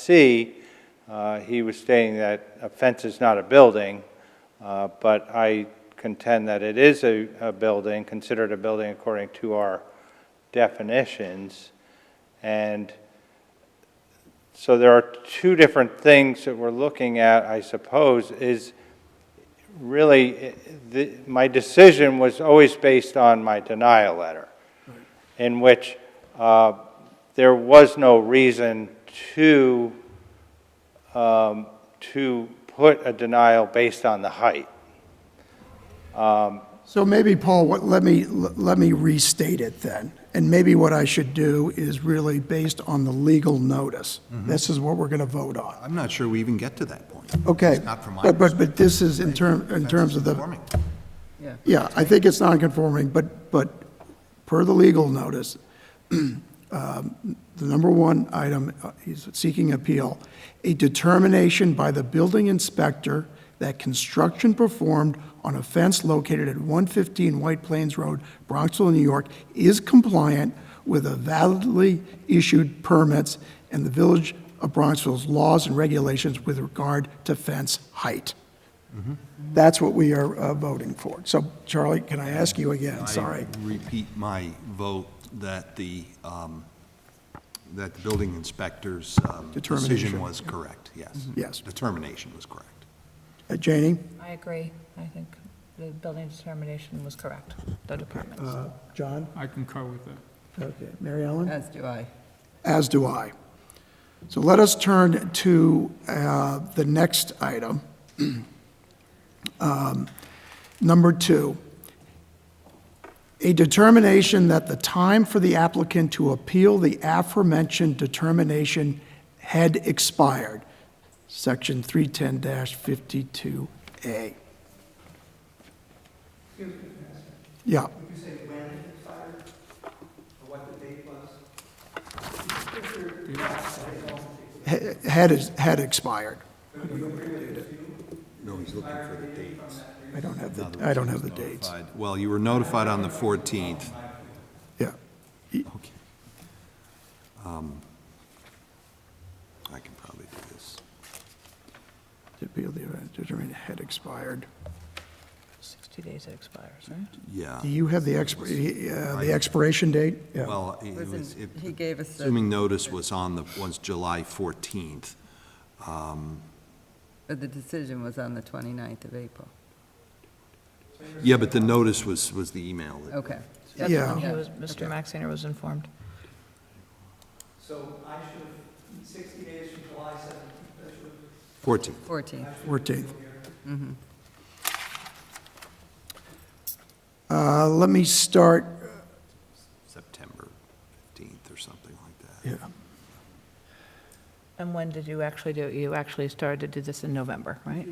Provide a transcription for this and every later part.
C, uh, he was stating that a fence is not a building, uh, but I contend that it is a, a building, considered a building according to our definitions. And so there are two different things that we're looking at, I suppose, is really, eh, the- my decision was always based on my denial letter, in which uh, there was no reason to, um, to put a denial based on the height. So maybe, Paul, what, let me, let me restate it then. And maybe what I should do is really based on the legal notice. Mm-hmm. This is what we're going to vote on. I'm not sure we even get to that point. Okay. It's not from my But, but, perspective. but this is in term, in terms of the, Conforming. yeah, I think it's non-conforming, but, but per the legal notice, um, the number one item, uh, he's seeking appeal, a determination by the building inspector that construction performed on a fence located at 115 White Plains Road, Bronxville, New York, is compliant with the validly issued permits and the Village of Bronxville's laws and regulations with regard to fence height. That's what we are uh, voting for. So Charlie, can I ask you again? Sorry. I repeat my vote that the, um, that the building inspector's um, Determination. Mm-hmm. decision was correct, yes. Yes. Determination was correct. Uh, Janie? I agree. I think the building determination was correct, the department's. Uh, John? I concur with that. Okay, Mary Ellen? As do I. As do I. So let us turn to uh, the next item. Um, Number two, a determination that the time for the applicant to appeal the aforementioned determination had expired, Section 310-52A. Yeah. ha- had, is- had expired. No, he's looking for the dates. I don't have the, I don't have the dates. Notified- Well, you were notified on the 14th. Yeah. Okay. Um, I can probably do this. To appeal the event determined had expired. 60 days it expires, right? Yeah. Do you have the expir, uh, the expiration date? Yeah. Well, it Was was, in- it- he gave us the- assuming notice was on the, was July 14th. But the decision was on the 29th of April. Yeah, but the notice was, was the email. that- Okay. That's Yeah. fine. He was, Mr. Maxiner was informed. So I should have, 60 days from July 7th, that should 14th. 14th. 14th. Mm-hmm. Uh, Let me start, September 15th or something like that. yeah, And when did you actually do, you actually started to do this in November, right?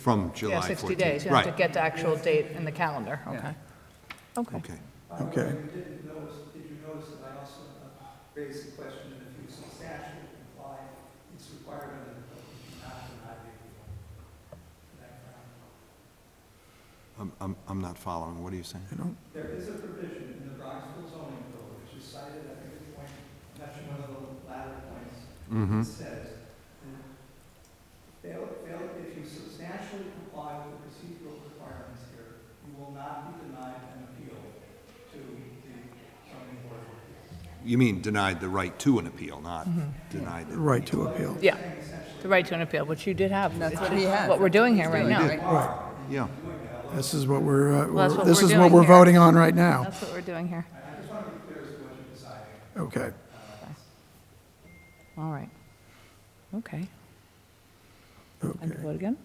From July Yeah, 14th. 60 days. You have to Right, get the actual date in the calendar, okay? Okay. okay. okay. didn't notice, did you notice that I also uh, raised the question that if you substantially comply, it's required under the code, you have to have I'm, I'm, I'm not following. What are you saying? I don't- There is a provision in the Bronxville zoning code, which is cited at the point, that's one of the latter points, that says, fail, fail, if you substantially comply with the procedural requirements here, you will not be denied an appeal to the zoning board of appeals. You mean denied the right to an appeal, not Mm-hmm. denied the... Right to appeal. Yeah, the right to an appeal, which you did have. That's It's what just he had. we're doing here right Doing now. it, Yeah. This is what we're, uh, Well, that's we're- what this we're is what doing we're here. voting on right now. That's what we're doing here. Okay. All right. Okay. And Okay. vote again?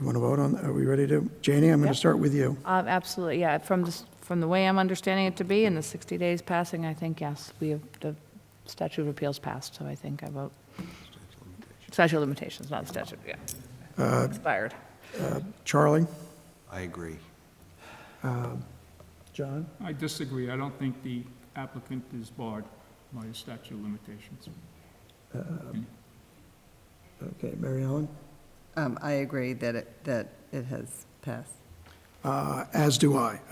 You want to vote on, are we ready to? Janie, I'm going Yeah. to start with you. Uh, Absolutely, yeah. From the, s- from the way I'm understanding it to be, and the 60 days passing, I think, yes, we have, the statute of appeals passed, so I think I vote. Statute of limitations, not statute, yeah. Expired. Charlie? I agree. John? I disagree. I don't think the applicant is barred by the statute of limitations. Okay, Mary Ellen? Um, I agree that it, that it has passed. uh, as do I.